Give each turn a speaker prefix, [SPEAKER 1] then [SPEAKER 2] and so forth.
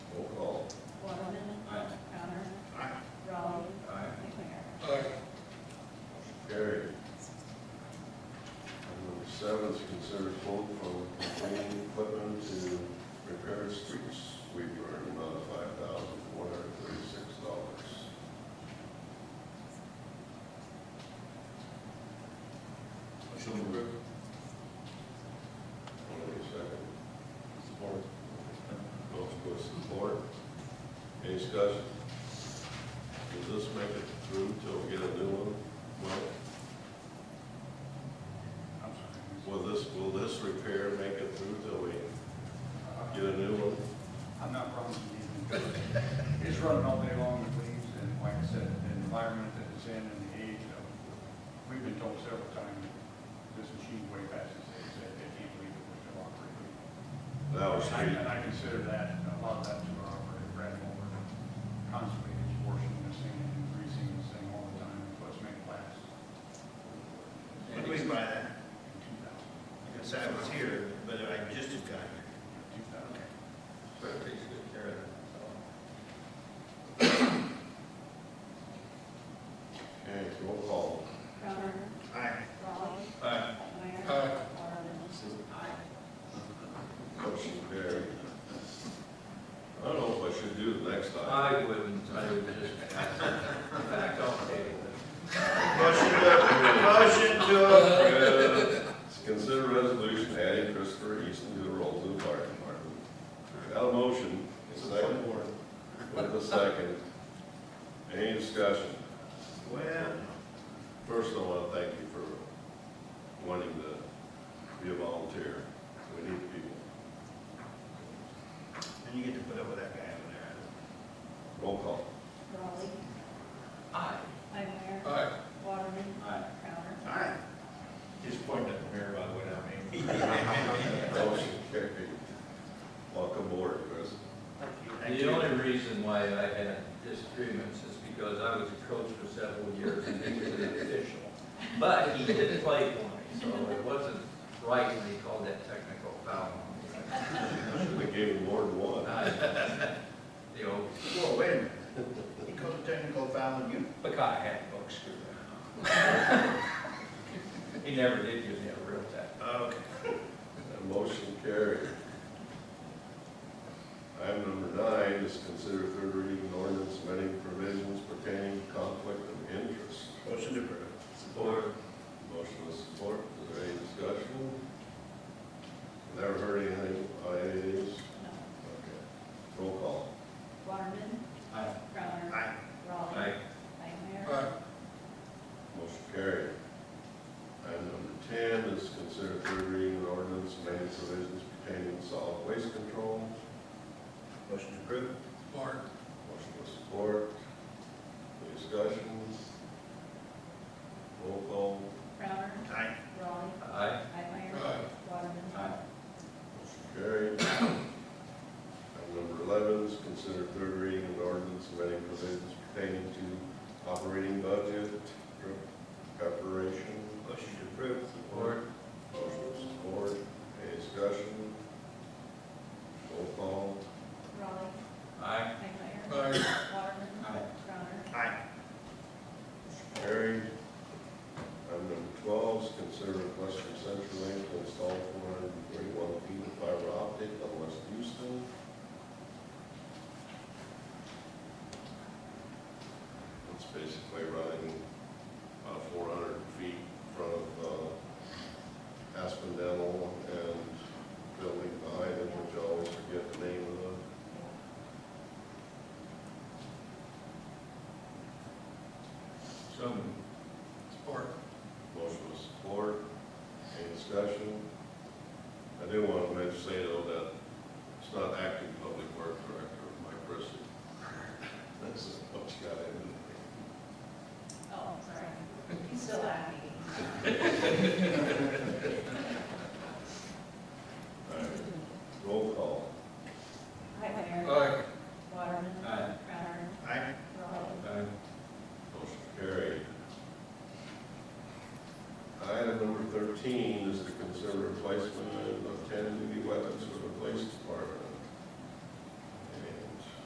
[SPEAKER 1] report. Any discussion? Does this make it through till we get a new one? Well,
[SPEAKER 2] I'm sorry.
[SPEAKER 1] will this, will this repair make it through till we get a new one?
[SPEAKER 2] I'm not promising anything. It's running all day long with leaves, and like I said, the environment that it's in and the age of, we've been told several times, this machine way past its age, that they can't believe it was still operating.
[SPEAKER 1] That was
[SPEAKER 2] I- And
[SPEAKER 1] three,
[SPEAKER 2] I consider that, a lot of that to our operator, Brad Moore, constantly is washing this thing and greasing this thing all the time, plus make it last.
[SPEAKER 3] What do you mean by that?
[SPEAKER 2] Two thousand,
[SPEAKER 3] Because I was here, but I just have got here.
[SPEAKER 2] two thousand.
[SPEAKER 3] But it takes good care of that.
[SPEAKER 1] okay, roll call.
[SPEAKER 4] Crowner,
[SPEAKER 3] Aye.
[SPEAKER 4] Raleigh,
[SPEAKER 3] Aye.
[SPEAKER 4] McNair. Marvin.
[SPEAKER 1] Motion carried. I don't know if I should do the next item.
[SPEAKER 5] I wouldn't, I would just, in fact, I'll table it.
[SPEAKER 3] Motion to, motion to,
[SPEAKER 1] Uh, Consider resolution adding Christopher Easton to the rolls of the fire department. Got a motion, a second, with a second. Any discussion?
[SPEAKER 3] well,
[SPEAKER 1] First, I want to thank you for wanting to be a volunteer. We need people.
[SPEAKER 3] and you get to put up with that guy over there.
[SPEAKER 1] Roll call.
[SPEAKER 4] Raleigh,
[SPEAKER 5] Aye.
[SPEAKER 4] McNair. Waterman. Crowner.
[SPEAKER 3] Aye. Just pointing at the mirror, by the way, I mean.
[SPEAKER 1] Motion carried. Welcome aboard, Chris.
[SPEAKER 3] Thank
[SPEAKER 5] The
[SPEAKER 3] you.
[SPEAKER 5] only reason why I had disagreements is because I was a coach for several years and he was an official. But he did play for me, so it wasn't right when he called that technical foul on
[SPEAKER 1] Should have gave him more than
[SPEAKER 5] me.
[SPEAKER 1] one.
[SPEAKER 5] I- The old
[SPEAKER 3] Whoa, wait a minute. He called a technical foul on you.
[SPEAKER 5] Buckeye hat book screw that. He never did give me a real tap.
[SPEAKER 3] Oh, Okay.
[SPEAKER 1] Motion carried. Item number nine is consider third reading of ordinance amending provisions pertaining to conflict of interest.
[SPEAKER 3] Motion to approve.
[SPEAKER 1] Support. Motion with support, is there any discussion? Never heard anything on any of these?
[SPEAKER 4] No.
[SPEAKER 1] Okay. Roll call.
[SPEAKER 4] Waterman.
[SPEAKER 3] Aye.
[SPEAKER 4] Crowner.
[SPEAKER 3] Aye.
[SPEAKER 4] Raleigh.
[SPEAKER 5] Aye.
[SPEAKER 4] McNair.
[SPEAKER 1] Motion carried. Item number ten is consider third reading of ordinance amending provisions pertaining to solid waste control.
[SPEAKER 3] Motion to approve.
[SPEAKER 1] Motion with support. Any discussion? Roll call.
[SPEAKER 4] Crowner.
[SPEAKER 3] Aye.
[SPEAKER 4] Raleigh.
[SPEAKER 5] Aye.
[SPEAKER 4] McNair. Waterman.
[SPEAKER 1] Motion carried. Item number eleven is consider third reading of ordinance amending provisions pertaining to operating budget preparation.
[SPEAKER 3] Motion to approve.
[SPEAKER 5] Support.
[SPEAKER 1] Motion with support. Any discussion? Roll call.
[SPEAKER 4] Raleigh.
[SPEAKER 5] Aye.
[SPEAKER 4] McNair.
[SPEAKER 3] Aye.
[SPEAKER 4] Waterman.
[SPEAKER 3] Aye.
[SPEAKER 4] Crowner.
[SPEAKER 3] Aye.
[SPEAKER 1] Carried. Item number twelve is consider request from Central Link to install four hundred and thirty-one feet of fiber optic on West Houston. It's basically running about four hundred feet in front of, uh, Aspen Dental and building behind it, which I always forget the name of the
[SPEAKER 5] So moved.
[SPEAKER 1] Motion with support. Any discussion? I do want to mention, say though, that it's not active
[SPEAKER 4] Oh,